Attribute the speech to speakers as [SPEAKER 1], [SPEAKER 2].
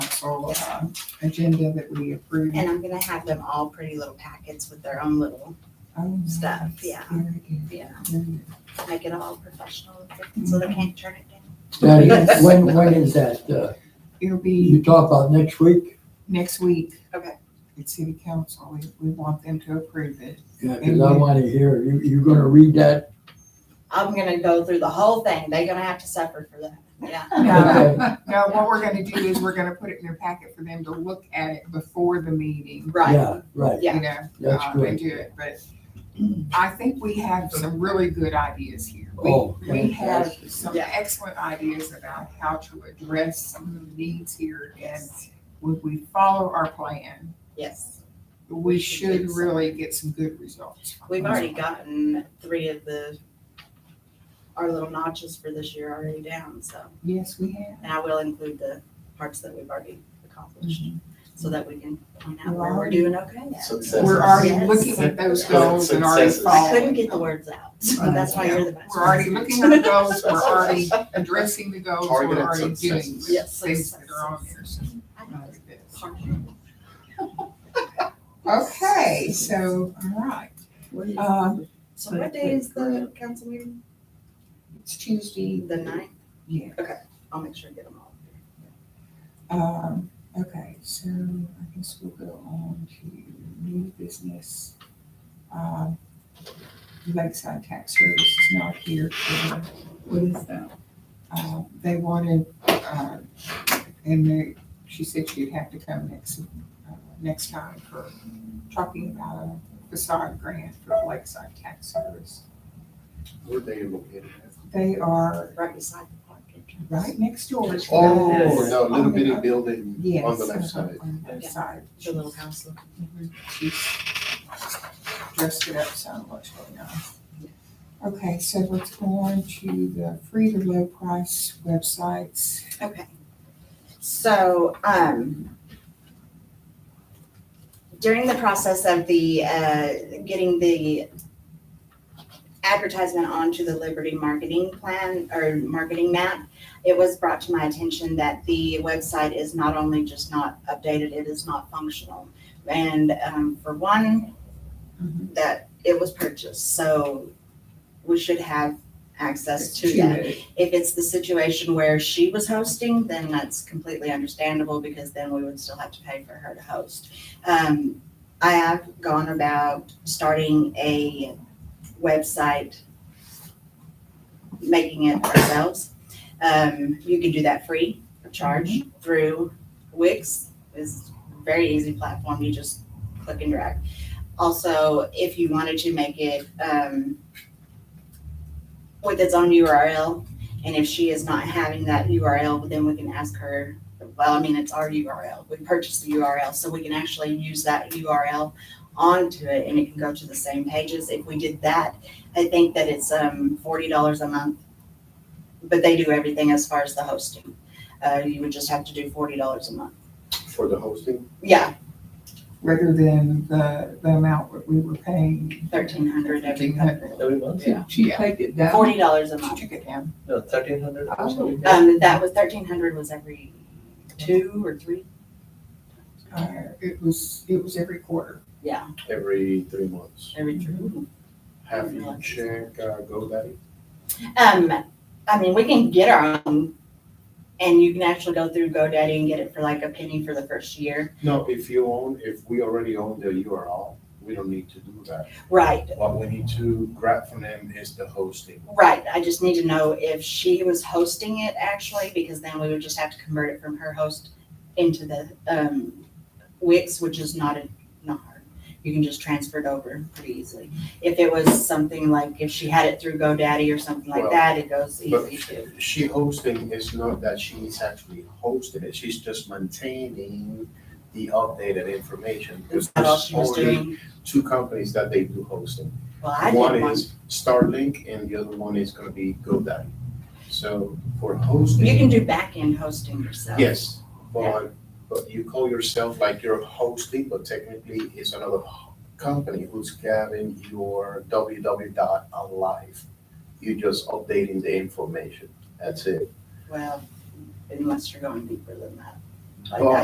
[SPEAKER 1] uh, agenda that we approved.
[SPEAKER 2] And I'm gonna have them all pretty little packets with their own little,
[SPEAKER 1] Oh,
[SPEAKER 2] stuff,
[SPEAKER 1] nice.
[SPEAKER 2] yeah.
[SPEAKER 1] Very good.
[SPEAKER 2] yeah,
[SPEAKER 1] Very good.
[SPEAKER 2] make it all professional, so they can't turn it down.
[SPEAKER 3] Now, you-
[SPEAKER 1] Yes.
[SPEAKER 3] when, when is that? Uh,
[SPEAKER 1] It'll
[SPEAKER 3] You
[SPEAKER 1] be
[SPEAKER 3] talk about next week?
[SPEAKER 1] next week.
[SPEAKER 2] Okay.
[SPEAKER 1] At city council, we, we want them to approve it.
[SPEAKER 3] Yeah, because I want to hear, you, you're going to read that?
[SPEAKER 2] I'm gonna go through the whole thing, they're gonna have to suffer for that, yeah.
[SPEAKER 1] No,
[SPEAKER 3] Okay.
[SPEAKER 1] no, what we're gonna do is we're gonna put it in their packet for them to look at it before the meeting.
[SPEAKER 2] Right,
[SPEAKER 3] Yeah, right.
[SPEAKER 2] Yeah.
[SPEAKER 1] You know,
[SPEAKER 3] That's
[SPEAKER 1] uh,
[SPEAKER 3] good.
[SPEAKER 1] and do it, but I think we have some really good ideas here. We-
[SPEAKER 3] Oh,
[SPEAKER 1] We have
[SPEAKER 3] fantastic.
[SPEAKER 1] some
[SPEAKER 2] Yeah.
[SPEAKER 1] excellent ideas about how to address some of the needs here, and if we follow our plan,
[SPEAKER 2] yes,
[SPEAKER 1] we should
[SPEAKER 2] get some.
[SPEAKER 1] really get some good results. from
[SPEAKER 2] we've
[SPEAKER 1] this.
[SPEAKER 2] already gotten three of the, our little notches for this year already down, so,
[SPEAKER 1] Yes, we have.
[SPEAKER 2] and I will include the parts that we've already accomplished, so that we can point out
[SPEAKER 1] We're
[SPEAKER 2] where we're
[SPEAKER 1] already-
[SPEAKER 2] doing okay.
[SPEAKER 4] Successes.
[SPEAKER 1] We're already
[SPEAKER 2] Yes.
[SPEAKER 1] looking at those goals and already
[SPEAKER 4] Successes.
[SPEAKER 2] I couldn't
[SPEAKER 1] following.
[SPEAKER 2] get the words out, so that's why you're the master.
[SPEAKER 1] We're already looking at the goals, we're already addressing the goals, we're
[SPEAKER 4] Targeted
[SPEAKER 1] already doing
[SPEAKER 4] successes.
[SPEAKER 1] things
[SPEAKER 2] Yes,
[SPEAKER 1] that are on there, so.
[SPEAKER 2] I know.
[SPEAKER 1] Okay, so, all right, um,
[SPEAKER 2] So what day is the council meeting?
[SPEAKER 1] it's Tuesday.
[SPEAKER 2] The ninth?
[SPEAKER 1] Yeah.
[SPEAKER 2] I'll make sure to get them all.
[SPEAKER 1] Um, okay, so I guess we'll go on to new business. Um, Lakeside Tax Service is not here for, what is that? Uh, they wanted, uh, and they, she said she'd have to come next, uh, next time for talking about a facade grant for Lakeside Tax Service.
[SPEAKER 4] Where they located at?
[SPEAKER 1] They are
[SPEAKER 2] Right beside the park entrance.
[SPEAKER 1] right next door. to
[SPEAKER 4] Oh,
[SPEAKER 1] us.
[SPEAKER 4] no, little
[SPEAKER 1] On the-
[SPEAKER 4] bitty building
[SPEAKER 1] Yes.
[SPEAKER 4] on the left side.
[SPEAKER 1] On the left side.
[SPEAKER 2] The little house. look.
[SPEAKER 1] She's dressed it up so much right now. Okay, so let's go on to the free to low price websites.
[SPEAKER 2] Okay. So, um, during the process of the, uh, getting the advertisement onto the Liberty marketing plan or marketing map, it was brought to my attention that the website is not only just not updated, it is not functional. And, um, for one, that it was purchased, so we should have access to that.
[SPEAKER 1] it.
[SPEAKER 2] If it's the situation where she was hosting, then that's completely understandable because then we would still have to pay for her to host. Um, I have gone about starting a website, making it ourselves. Um, you can do that free of charge through Wix. It's a very easy platform. You just click and drag. Also, if you wanted to make it, um, with its own URL, and if she is not having that URL, then we can ask her, well, I mean, it's our URL. We purchased the URL, so we can actually use that URL onto it and it can go to the same pages. If we did that, I think that it's um forty dollars a month. But they do everything as far as the hosting. Uh, you would just have to do forty dollars a month.
[SPEAKER 4] For the hosting?
[SPEAKER 2] Yeah,
[SPEAKER 1] Rather than the, the amount that we were paying.
[SPEAKER 2] thirteen hundred every
[SPEAKER 1] Thirteen hundred.
[SPEAKER 5] Every month?
[SPEAKER 1] Yeah, she took it down.
[SPEAKER 2] forty dollars a
[SPEAKER 1] She
[SPEAKER 2] month.
[SPEAKER 1] took it down.
[SPEAKER 5] No, thirteen hundred or something.
[SPEAKER 2] Um, that was thirteen hundred was every two or three.
[SPEAKER 1] Uh, it was, it was every quarter.
[SPEAKER 2] Yeah,
[SPEAKER 4] Every three months.
[SPEAKER 2] every three.
[SPEAKER 4] Have you check uh, GoDaddy?
[SPEAKER 2] Um, I mean, we can get our own, and you can actually go through GoDaddy and get it for like a penny for the first year.
[SPEAKER 4] No, if you own, if we already own the URL, we don't need to do that.
[SPEAKER 2] Right,
[SPEAKER 4] What we need to grab from them is the hosting.
[SPEAKER 2] right. I just need to know if she was hosting it actually, because then we would just have to convert it from her host into the um, Wix, which is not a, not hard. You can just transfer it over pretty easily. If it was something like if she had it through GoDaddy or something like
[SPEAKER 4] Well,
[SPEAKER 2] that, it goes
[SPEAKER 4] But
[SPEAKER 2] easy too.
[SPEAKER 4] she hosting is not that she's actually hosting it, she's just maintaining the updated information.
[SPEAKER 2] That's
[SPEAKER 4] Because
[SPEAKER 2] all
[SPEAKER 4] there's
[SPEAKER 2] she was
[SPEAKER 4] only
[SPEAKER 2] doing.
[SPEAKER 4] Two companies that they do hosting.
[SPEAKER 2] Well, I did
[SPEAKER 4] One
[SPEAKER 2] one.
[SPEAKER 4] is Starlink and the other one is gonna be GoDaddy. So for hosting.
[SPEAKER 2] You can do back-end hosting yourself.
[SPEAKER 4] Yes, but, but you call yourself like you're hosting, but technically it's another ho- company who's grabbing your www dot alive. You're just updating the information, that's it.
[SPEAKER 2] Well, unless you're going deeper than that. Like
[SPEAKER 4] Well,
[SPEAKER 2] I